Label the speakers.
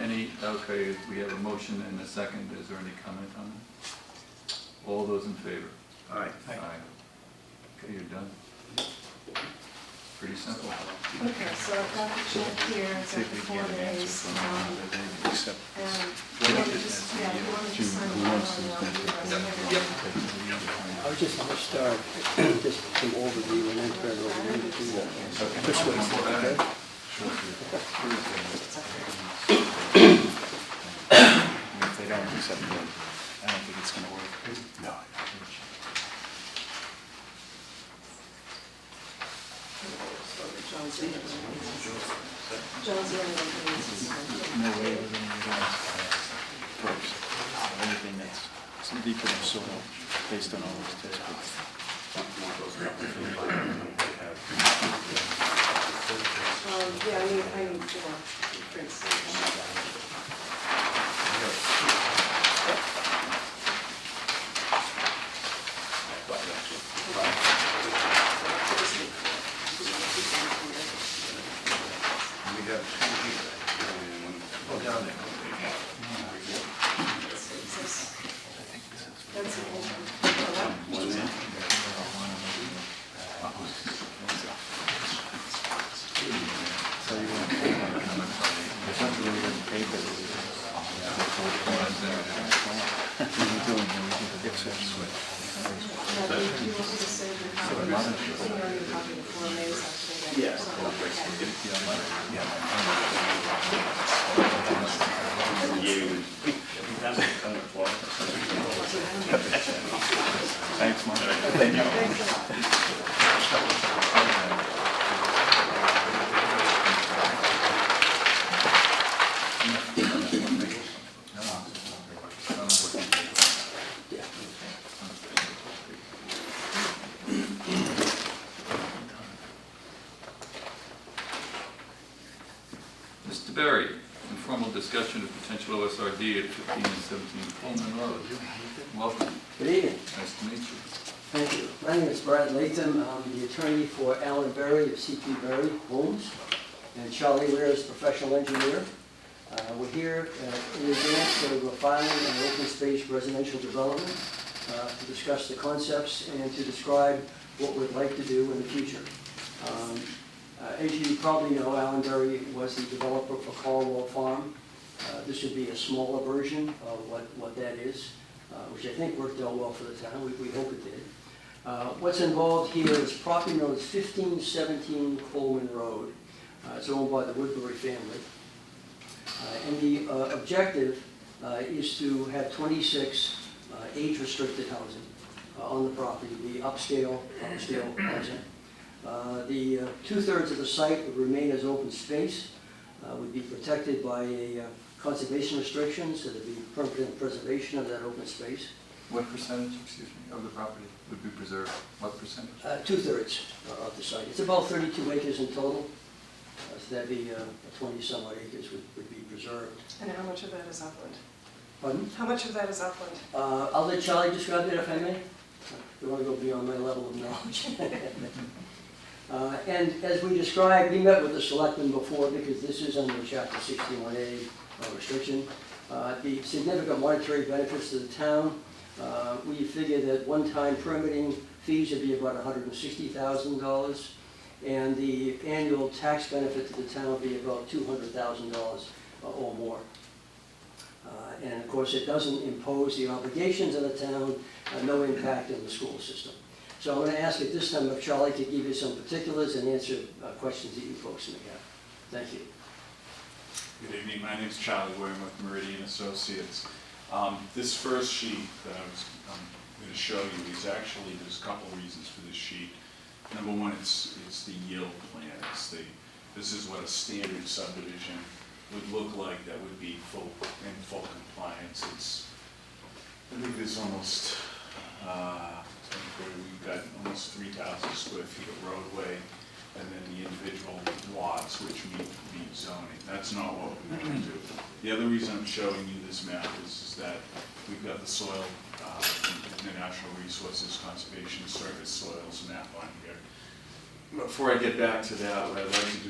Speaker 1: Any, okay, we have a motion and a second, is there any comment on it? All those in favor?
Speaker 2: Aye.
Speaker 1: Okay, you're done. Pretty simple.
Speaker 3: Okay, so I've got the check here, it's
Speaker 2: See
Speaker 3: got
Speaker 2: if
Speaker 3: the
Speaker 2: we
Speaker 3: four
Speaker 2: can get an answer
Speaker 3: days.
Speaker 2: from
Speaker 3: um,
Speaker 2: him, but they accept
Speaker 3: and
Speaker 2: this.
Speaker 3: you
Speaker 2: Well,
Speaker 3: wanna
Speaker 2: it
Speaker 3: just-
Speaker 2: is,
Speaker 3: Yeah,
Speaker 2: yeah.
Speaker 3: you want to
Speaker 2: June,
Speaker 3: just sign
Speaker 2: who
Speaker 3: the
Speaker 2: wants
Speaker 3: bottom
Speaker 2: to take
Speaker 3: now, you
Speaker 2: the
Speaker 3: guys
Speaker 2: vote?
Speaker 3: have it.
Speaker 4: I was just gonna start, just some overview and then turn it over to you. This way, okay?
Speaker 2: If they don't accept it, I don't think it's gonna work. No.
Speaker 3: John's in it. John's in it, he needs to sign.
Speaker 2: No way. First, anything that's some deeper in soil, based on all those test pits.
Speaker 3: Um, yeah, I need, I need four prints. That's an old one. Yeah, but if you want me to send you a copy, you know, you copy the form, maybe it's actually. Yes.
Speaker 2: Thanks, Mark.
Speaker 3: Thanks a lot.
Speaker 1: Mr. Berry, informal discussion of potential OSRD at 15 and 17 Pullman Road. Welcome,
Speaker 4: Good evening,
Speaker 1: nice to meet you.
Speaker 4: thank you. My name is Brad Latham, I'm the attorney for Alan Berry of CP Berry Homes, and Charlie Ware is professional engineer. Uh, We're here uh, in advance of a filing an open space residential development uh, to discuss the concepts and to describe what we'd like to do in the future. Um, uh, As you probably know, Alan Berry was the developer for Caldwell Farm. Uh, This would be a smaller version of what, what that is, uh, which I think worked out well for the town, we, we hope it did. Uh, What's involved here is property known as 1517 Coleman Road. Uh, It's owned by the Woodbury family. Uh, And the uh, objective uh, is to have 26 uh, age-restricted housing uh, on the property, the upscale, upscale housing. Uh, The uh, two-thirds of the site would remain as open space, uh, would be protected by a uh, conservation restrictions, so there'd be permanent preservation of that open space.
Speaker 1: What percentage, excuse me, of the property would be preserved? What percentage?
Speaker 4: Uh, Two-thirds uh, of the site. It's about 32 acres in total, Uh, so that'd be 20-some odd acres would would be preserved.
Speaker 3: And how much of that is upland?
Speaker 4: Pardon?
Speaker 3: How much of that is upland?
Speaker 4: Uh, I'll let Charlie describe that if I may. You want to go beyond my level of knowledge. Uh, And as we described, we met with the selectmen before because this is under chapter 61A uh, restriction. Uh, The significant monetary benefits to the town, uh, we figure that one-time permitting fees would be about $160,000 and the annual tax benefit to the town would be about $200,000 or more. Uh, And of course, it doesn't impose the obligations of the town, uh, no impact on the school system. So I'm going to ask at this time if Charlie could give you some particulars and answer uh, questions that you folks may have. Thank you.
Speaker 5: Good evening, my name's Charlie William with Meridian Associates. Um, This first sheet that I was, I'm gonna show you is actually, there's a couple reasons for this sheet. Number one, it's, it's the yield plan, it's the, this is what a standard subdivision would look like that would be full, in full compliance. It's, I think there's almost, uh, we've got almost three thousand square feet of roadway, and then the individual lots which meet, meet zoning. That's not what we want to do. The other reason I'm showing you this map is, is that we've got the soil, uh, the Natural Resources Conservation Service soils map on here. Before I get back to that, what I'd like to do